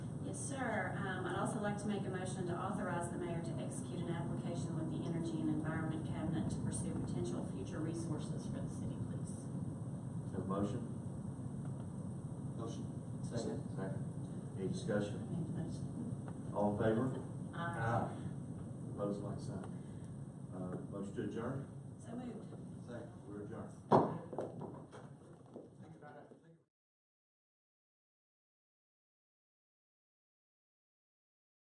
Um, also like to make a motion to authorize the mayor to execute an application with the Energy and Environment Cabinet to pursue potential future resources for the city, please. Is there a motion? Motion. Second. Any discussion? I made the motion. All in favor? Aye. Opposed, like sign. Uh, motion to adjourn? So moved. Second. We're adjourned.